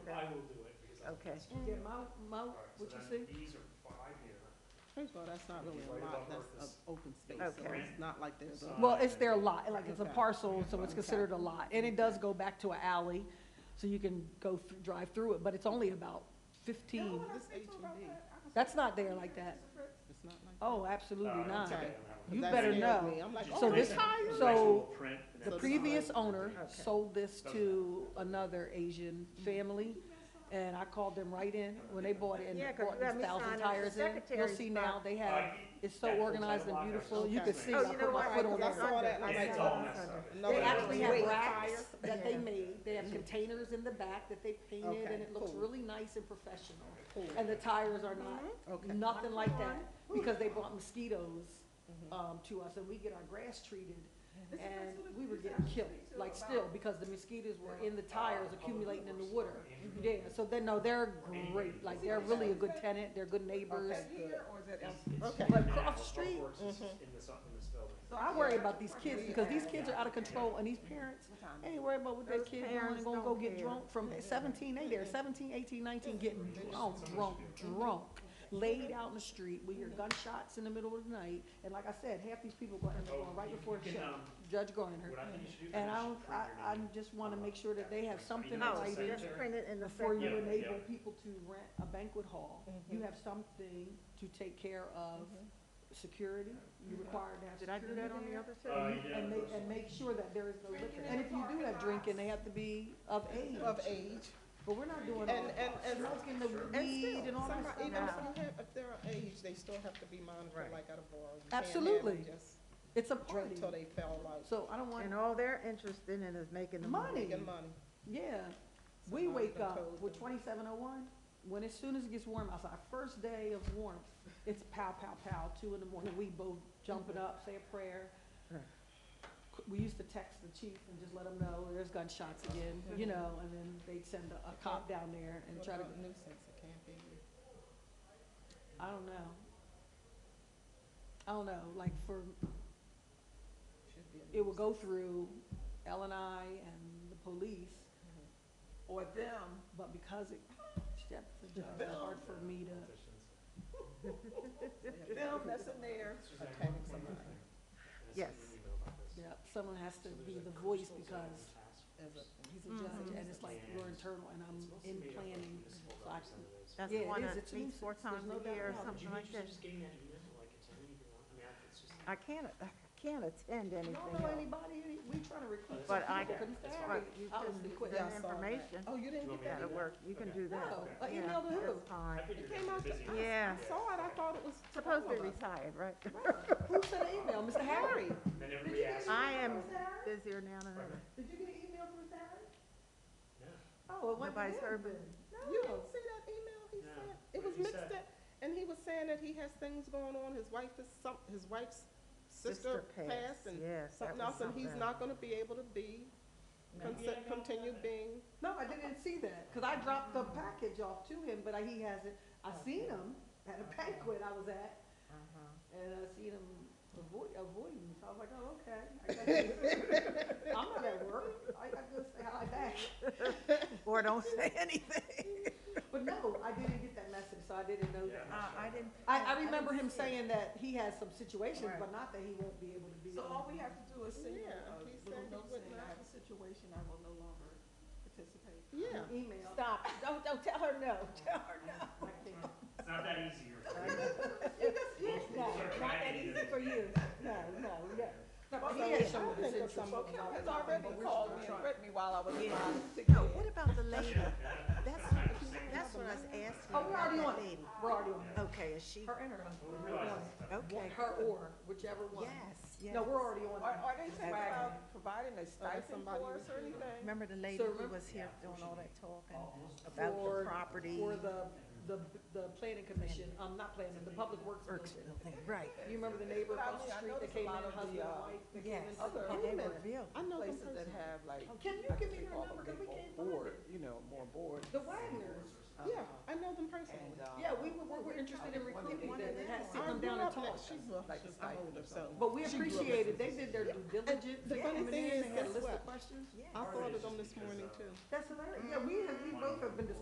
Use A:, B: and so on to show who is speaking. A: will do it because I.
B: Okay.
C: Yeah, my, my,
A: All right, so
C: what you
A: then
C: see?
A: These are five here.
D: First of all, that's not really a lot, that's an open space, so
B: Okay.
D: it's not like there's a.
C: Well, it's
A: Uh,
C: their lot, like it's a
D: Okay.
C: parcel, so it's
D: Okay.
C: considered a lot, and it does go back to an alley, so you can go, thr- drive through it, but it's only about fifteen.
D: It's HOD,
C: That's not there like that.
D: it's not like.
C: Oh, absolutely
A: Uh, I don't
C: not.
A: think I
D: Okay.
A: have that one.
C: You
D: 'Cause that
C: better
D: scared
C: know.
D: me. I'm like,
A: Just
D: oh,
C: this-
D: they
A: original-
D: hired.
C: so
A: original print and
C: The
A: that's
C: previous
A: not-
C: owner
B: Okay.
C: sold this to another Asian family, and I called them right in when they bought it and
B: Yeah, 'cause
C: bought
B: you had
C: these
B: me sign
C: thousand
B: up for
C: tires in. You'll
B: secretary's
C: see
B: spot.
C: now, they
A: Uh,
C: have, it's so
A: that whole
C: organized
A: side
C: and
A: block is-
C: beautiful, you can
D: Okay.
C: see,
B: Oh,
C: I
B: you
C: put
B: know
C: my
B: what?
C: foot on
D: Because I saw
C: there.
D: that, and I'm
A: Yeah,
D: like.
A: it's all
D: oh.
A: messed up.
D: No,
C: They
D: wait,
C: actually have
D: wait.
C: racks that they
B: Yeah.
C: made, they have containers in the back that they painted,
D: Okay,
C: and it looks
D: cool.
C: really nice and professional.
D: Cool.
C: And the tires are not,
D: Mm-hmm. Okay.
C: nothing like that, because they brought mosquitoes, um, to us, and we get our grass treated. And we were getting killed, like still, because the mosquitoes were in the tires accumulating in the water. Yeah, so then, no, they're great, like, they're really a good tenant, they're good neighbors.
D: Okay, good.
A: Okay.
C: But across the street- Mm-hmm.
A: In this, in this building.
C: So I worry about these kids, because these kids are out of control, and these parents, they ain't worried about what their
B: Those
C: kid doing,
B: parents
C: and gonna go
B: don't
C: get
B: care.
C: drunk from seventeen, they there, seventeen, eighteen, nineteen, getting drunk, drunk, drunk. Laid out in the street, we hear gunshots in the middle of the night, and like I said, half these people gonna end up going right before the
A: You can,
C: show,
A: um,
C: Judge Garner.
A: What I think you should do.
C: And I
A: is you
C: don't,
A: should print your
C: I, I
A: name.
C: just wanna make sure that they have something in
A: No,
B: Oh,
C: writing
B: just print it in the
C: before you
A: Yeah,
B: second.
C: enable
A: yeah.
C: people to rent a banquet hall.
B: Mm-hmm.
C: You have something to take care of security, you require to have
B: Did I do
C: security
B: that on the
C: there.
B: other
A: Uh,
B: side?
A: yeah,
C: And make,
A: those-
C: and make sure that there is no liquor,
E: Drinking in
C: and
E: the
C: if you do
E: parking
C: have
E: lots.
C: drinking, they have to be of age,
D: Of age,
C: but we're not doing all
D: and, and,
C: that,
D: and,
C: smoking the
D: and
C: weed and
D: still,
C: all that
D: somebody,
C: stuff.
D: even if
B: No.
D: you have, if they're of age, they still have to be monitored
B: Right.
D: like at a bar. You can't have
C: Absolutely.
D: them just
C: It's a
D: Drink
C: party,
D: till they fell out,
C: so I don't want,
B: And all they're interested in is making the money.
C: money,
D: making money.
C: yeah.
D: So
C: We
D: now
C: wake
D: the
C: up
D: code
C: with
D: then.
C: twenty-seven oh one, when as soon as it gets warm, it's our first day of warmth, it's pow, pow, pow, two in the morning, we both jumping up, say a prayer.
B: Right.
C: We used to text the chief and just let him know, there's gunshots again, you
D: Mm-hmm.
C: know, and then they'd send a- a cop down there and
D: What
C: try to,
D: about Nuisance, it can't be.
C: I don't know. I don't know, like for,
D: should be a
C: it will
D: nuisance.
C: go through L and I and the police or them, but because it steps the judge, it's hard for me to.
D: Yeah. Okay, somebody.
B: Yes.
C: Yep, someone has to be the voice because
D: As a-
C: he's a judge and it's like you're internal and I'm um, in planning. so I can-
B: That's
C: Yeah, it
B: one
C: is.
B: at
C: It's a
B: least
C: nuisance.
B: four
C: There's
B: times
C: no
B: a
C: doubt
B: year or
C: about it.
B: something like this. I can't, I can't attend
C: You
B: anything
C: don't know
B: else.
C: anybody, we trying to recruit some
B: But I
C: people,
B: can-
C: couldn't
A: that's
C: stand
B: But
C: it.
B: you
C: I
B: can
C: was
B: do
C: quit.
B: the
D: Yeah, I saw that.
B: information.
D: Oh, you didn't
A: You
D: get
A: want me to
D: that?
B: That'll work. You can do that.
C: No, Oh, an
B: Yeah,
C: email to who?
B: That's fine.
D: It came out, the- I, I
B: Yeah.
D: saw it, I thought it was.
B: Supposed to be
D: twelve of us.
B: retired, right?
C: Who sent an email, Mr. Harry?
A: Then everybody asks.
B: I am busier now than ever.
C: Did you get an email from Mr. Harry?
A: No.
C: Oh, it went to
B: Nobody's heard of
C: him then.
D: You
C: No.
D: didn't see that email he
A: No.
D: sent?
A: What
D: It was
A: did he
D: mixed
A: say?
D: up, and he was saying that he has things going on, his wife is some, his wife's sister passed and
B: Yes, that
D: something
B: was
D: else,
B: something.
D: and he's not gonna be able to be, consi- continue being.
C: No, I didn't see that, cause I dropped the package off to him, but I- he hasn't, I seen him at a banquet I was at.
B: Uh-huh.
C: And I seen him avoid, avoiding me, so I was like, oh, okay. I guess- I'm not at work, I, I just say hi back.
B: Or don't say anything.
C: But no, I didn't get that message, so I didn't know that.
A: Yeah. Uh, I
E: didn't.
C: I, I remember him saying that he has some situations, but not that he won't be able to be.
E: So
C: on
E: all
C: the-
E: we have to do is send him
D: Yeah,
E: a
D: he said
E: little
D: he
E: note
D: would
E: saying,
D: not.
E: I have a situation, I will no longer participate.
D: Yeah.
C: Email.
B: Stop. Don't, don't tell her no. Tell her
C: I can't.
A: It's not that easy. you're-
C: No, not that easy for you, no, no, no. No, but he has some
D: I think
C: decisions.
D: of some-
E: Well, Kim has already
C: But we're still
E: called me and
C: trying.
E: threatened me while I was trying to
B: Uh, No,
E: get.
B: what about the lady? That's, that's what I was asking
C: Oh, we're
B: about
C: already
B: that
C: on it,
B: lady.
C: we're already on it.
B: Okay, is she,
C: Her and her
A: We
C: husband.
A: realize it's tough.
B: okay.
C: Her or, whichever one.
B: Yes, yes.
C: No, we're already on
E: Are,
C: it.
E: are they saying
B: Okay.
E: about providing a stipend
D: somebody
E: for
D: was
E: us or
D: doing
E: anything?
B: Remember the lady who
C: So remember- Oh,
B: was here doing all that talking about the
C: For-
B: property?
C: For the, the, the planning commission, um, not planning, the public works
B: Works
C: commission.
B: building, right,
C: You remember the neighbor
E: But I
C: across the
E: mean, I
C: street that
E: noticed a
C: came in,
E: lot of the,
C: husband and
E: uh,
C: wife? that came
B: yes.
C: in?
E: Other
B: And they were
D: Women.
B: built.
D: I know some
E: Places that
D: person.
E: have like.
C: Can you
E: I
C: give
E: can
C: me
E: think
C: her
E: all of
C: number,
E: them,
C: 'cause we
E: they
C: can't
E: all
C: find
E: board.
C: it?
F: you know, more board.
C: The Wagners,
D: Yeah, I know them personally.
F: And, uh,
C: yeah, we were, we were interested in recruiting them, they had to sit
D: I
C: them
D: grew
C: down and
D: up
C: talk.
D: next- She's, well,
E: Like a
D: she's
E: stipend
D: older,
E: or
D: so.
C: But we appreciated, they did their due diligence,
D: the
C: they
D: funny
C: came in,
D: thing is,
C: they had a
D: guess
C: list of
D: what?
C: questions.
B: Yeah.
D: I
A: Part of it is
D: thought of them
A: just
D: this
A: because,
D: morning
A: uh,
D: too.
C: That's hilarious, yeah, we, have- we both have been discussing